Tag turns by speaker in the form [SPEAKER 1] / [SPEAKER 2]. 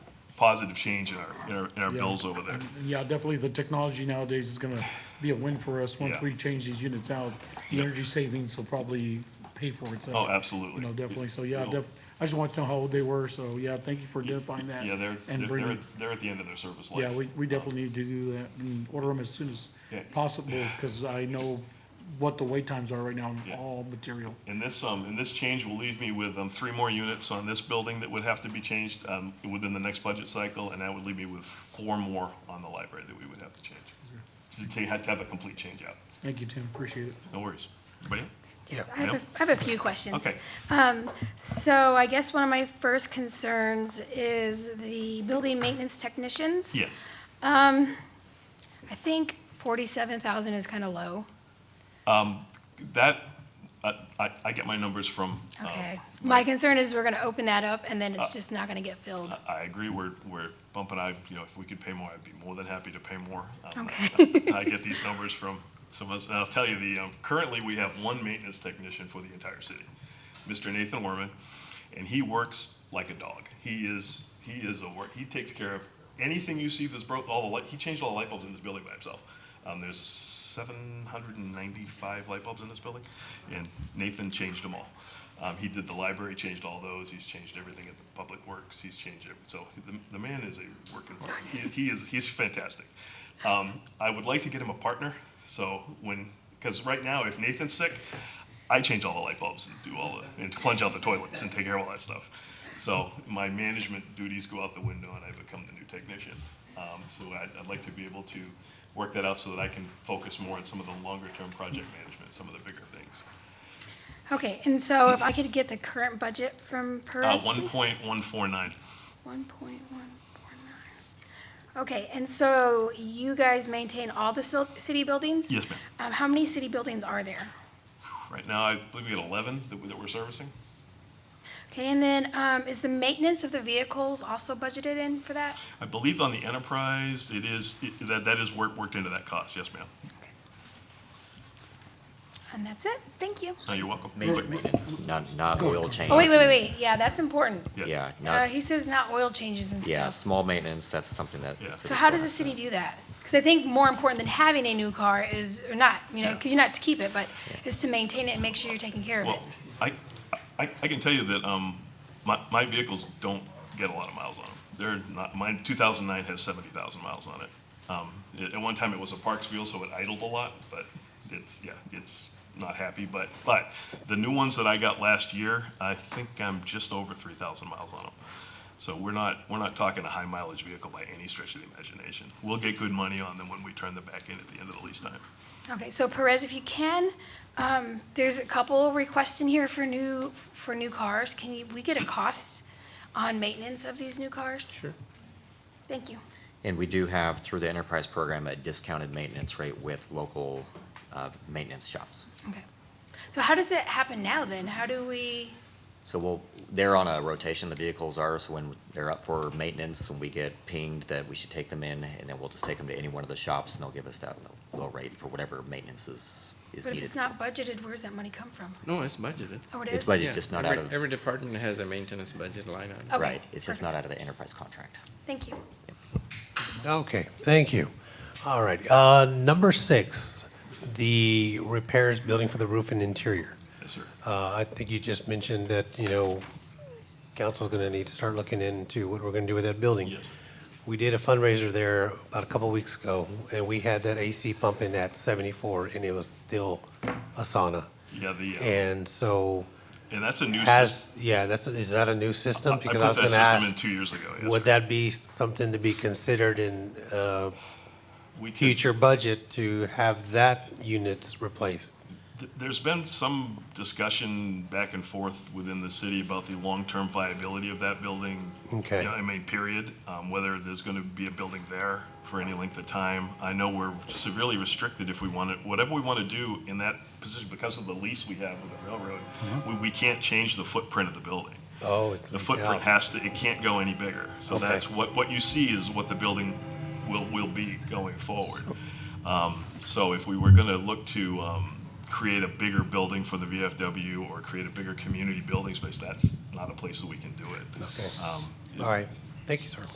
[SPEAKER 1] positive change in our, in our, in our bills over there.
[SPEAKER 2] And Yeah, definitely the technology nowadays is gonna be a win for us. Once
[SPEAKER 1] Yeah.
[SPEAKER 2] we change these units out, the
[SPEAKER 1] Yeah.
[SPEAKER 2] energy savings will probably pay for itself.
[SPEAKER 1] Oh, absolutely.
[SPEAKER 2] You know, definitely. So, yeah,
[SPEAKER 1] It'll-
[SPEAKER 2] def, I just wanted to know how old they were, so, yeah, thank you for identifying that.
[SPEAKER 1] Yeah, they're,
[SPEAKER 2] and
[SPEAKER 1] they're,
[SPEAKER 2] bringing-
[SPEAKER 1] they're, they're at the end of their service life.
[SPEAKER 2] Yeah, we, we definitely need to do that and order them as soon as
[SPEAKER 1] Yeah.
[SPEAKER 2] possible, because I know what the wait times are right now on
[SPEAKER 1] Yeah.
[SPEAKER 2] all material.
[SPEAKER 1] And this, um, and this change will leave me with, um, three more units on this building that would have to be changed, um, within the next budget cycle, and that would leave me with four more on the library that we would have to change. So you had to have a complete change out.
[SPEAKER 2] Thank you, Tim, appreciate it.
[SPEAKER 1] No worries. Everybody?
[SPEAKER 3] Yes, I
[SPEAKER 1] Ma'am?
[SPEAKER 3] have, a- I have a few questions.
[SPEAKER 1] Okay.
[SPEAKER 3] Um, so I guess one of my first concerns is the building maintenance technicians.
[SPEAKER 1] Yes.
[SPEAKER 3] I think forty-seven thousand is kind of low.
[SPEAKER 1] That, I, I, I get my numbers from, um,
[SPEAKER 3] Okay. My concern is we're gonna open that up and then
[SPEAKER 1] Uh,
[SPEAKER 3] it's just not gonna get filled.
[SPEAKER 1] I I agree, we're, we're bumping, I, you know, if we could pay more, I'd be more than happy to pay more. Um,
[SPEAKER 3] Okay.
[SPEAKER 1] I get these numbers from some of us, and I'll tell you, the, um, currently, we have one maintenance technician for the entire city, Mr. Nathan Werman, and he works like a dog. He is, he is a work, he takes care of anything you see that's broke, all the light, he changed all the light bulbs in this building by himself. Um, there's seven hundred and ninety-five light bulbs in this building, and Nathan changed them all. Um, he did the library, changed all those, he's changed everything at the Public Works, he's changed it, so the, the man is a working, he, he is, he's fantastic. Um, I would like to get him a partner, so when, because right now, if Nathan's sick, I change all the light bulbs and do all the, and plunge out the toilets and take care of all that stuff. So my management duties go out the window and I become the new technician. Um, so I'd, I'd like to be able to work that out so that I can focus more on some of the longer-term project management, some of the bigger things.
[SPEAKER 3] Okay, and so if I could get the current budget from
[SPEAKER 1] Uh,
[SPEAKER 3] Perez,
[SPEAKER 1] one
[SPEAKER 3] please?
[SPEAKER 1] point one four nine.
[SPEAKER 3] One point one four nine. Okay, and so you guys maintain all the sil- city buildings?
[SPEAKER 1] Yes, ma'am.
[SPEAKER 3] Um, how many city buildings are there?
[SPEAKER 1] Right now, I believe we had eleven that, we- that we're servicing.
[SPEAKER 3] Okay, and then, um, is the maintenance of the vehicles also budgeted in for that?
[SPEAKER 1] I believe on the enterprise, it is, it- that, that is worked, worked into that cost. Yes, ma'am.
[SPEAKER 3] And that's it, thank you.
[SPEAKER 1] No, you're welcome.
[SPEAKER 4] Major maintenance, not, not oil change.
[SPEAKER 3] Oh, wait, wait, wait, wait, yeah, that's important.
[SPEAKER 1] Yeah.
[SPEAKER 4] Yeah,
[SPEAKER 3] Uh,
[SPEAKER 4] not,
[SPEAKER 3] he says not oil changes and
[SPEAKER 4] yeah,
[SPEAKER 3] stuff.
[SPEAKER 4] small maintenance, that's something that. the
[SPEAKER 1] Yeah.
[SPEAKER 4] cities
[SPEAKER 3] So how
[SPEAKER 4] don't
[SPEAKER 3] does the
[SPEAKER 4] have
[SPEAKER 3] city do that? Because I think more important than having a new car is, or not, you know,
[SPEAKER 1] Yeah.
[SPEAKER 3] because you're not to keep it, but is to maintain it and make sure you're taking care of it.
[SPEAKER 1] Well, I, I, I can tell you that, um, my, my vehicles don't get a lot of miles on them. They're not, mine, two thousand nine has seventy thousand miles on it. Um, at, at one time it was a Parks wheel, so it idled a lot, but it's, yeah, it's not happy, but, but the new ones that I got last year, I think I'm just over three thousand miles on them. So we're not, we're not talking a high mileage vehicle by any stretch of the imagination. We'll get good money on them when we turn them back in at the end of the lease time.
[SPEAKER 3] Okay, so Perez, if you can, um, there's a couple requests in here for new, for new cars. Can you, we get a cost on maintenance of these new cars?
[SPEAKER 4] Sure.
[SPEAKER 3] Thank you.
[SPEAKER 4] And we do have, through the enterprise program, a discounted maintenance rate with local, uh, maintenance shops.
[SPEAKER 3] Okay. So how does that happen now then? How do we,
[SPEAKER 4] So we'll, they're on a rotation, the vehicles are, so when they're up for maintenance and we get pinged that we should take them in, and then we'll just take them to any one of the shops and they'll give us that low- low rate for whatever maintenance is, is
[SPEAKER 3] but
[SPEAKER 4] needed.
[SPEAKER 3] if it's not budgeted, where does that money come from?
[SPEAKER 5] No, it's budgeted.
[SPEAKER 3] Oh, it
[SPEAKER 4] It's
[SPEAKER 3] is?
[SPEAKER 4] budgeted.
[SPEAKER 5] Yeah,
[SPEAKER 4] just not
[SPEAKER 5] every-
[SPEAKER 4] out of-
[SPEAKER 5] Every department has a maintenance budget line item.
[SPEAKER 3] Okay,
[SPEAKER 4] Right, it's
[SPEAKER 3] perfect.
[SPEAKER 4] just not out of the enterprise contract.
[SPEAKER 3] Thank you.
[SPEAKER 6] Okay, thank you. All right, uh, number six, the repairs building for the roof and interior.
[SPEAKER 1] Yes, sir.
[SPEAKER 6] Uh, I think you just mentioned that, you know, council's gonna need to start looking into what we're gonna do with that building.
[SPEAKER 1] Yes.
[SPEAKER 6] We did a fundraiser there about a couple weeks ago, and we had that AC pumping at seventy-four, and it was still a sauna.
[SPEAKER 1] Yeah, the, uh,
[SPEAKER 6] And so
[SPEAKER 1] and that's a new system.
[SPEAKER 6] has, yeah, that's, is that a new system?
[SPEAKER 1] I
[SPEAKER 6] Because
[SPEAKER 1] put
[SPEAKER 6] was
[SPEAKER 1] that
[SPEAKER 6] gonna
[SPEAKER 1] system in
[SPEAKER 6] ask,
[SPEAKER 1] two years ago, yes,
[SPEAKER 6] Would
[SPEAKER 1] sir.
[SPEAKER 6] that be something to be considered in, uh,
[SPEAKER 1] We could-
[SPEAKER 6] future budget to have that units replaced.
[SPEAKER 1] th- There's been some discussion back and forth within the city about the long-term viability of that building. You
[SPEAKER 6] Okay.
[SPEAKER 1] know, I mean, period, um, whether there's gonna be a building there for any length of time. I know we're severely restricted if we want to, whatever we want to do in that position, because of the lease we have with the railroad,
[SPEAKER 6] Mm-hmm.
[SPEAKER 1] we, we can't change the footprint of the building.
[SPEAKER 6] Oh, it's.
[SPEAKER 1] The footprint has to, it can't go any bigger. So
[SPEAKER 6] Okay.
[SPEAKER 1] that's what, what you see is what the building will, will be going forward. Um, So if we were gonna look to um, create a bigger building for the VFW or create a bigger community building space, that's not a place that we can do it.
[SPEAKER 6] Okay.
[SPEAKER 1] Um,
[SPEAKER 6] All right, thank you, sir.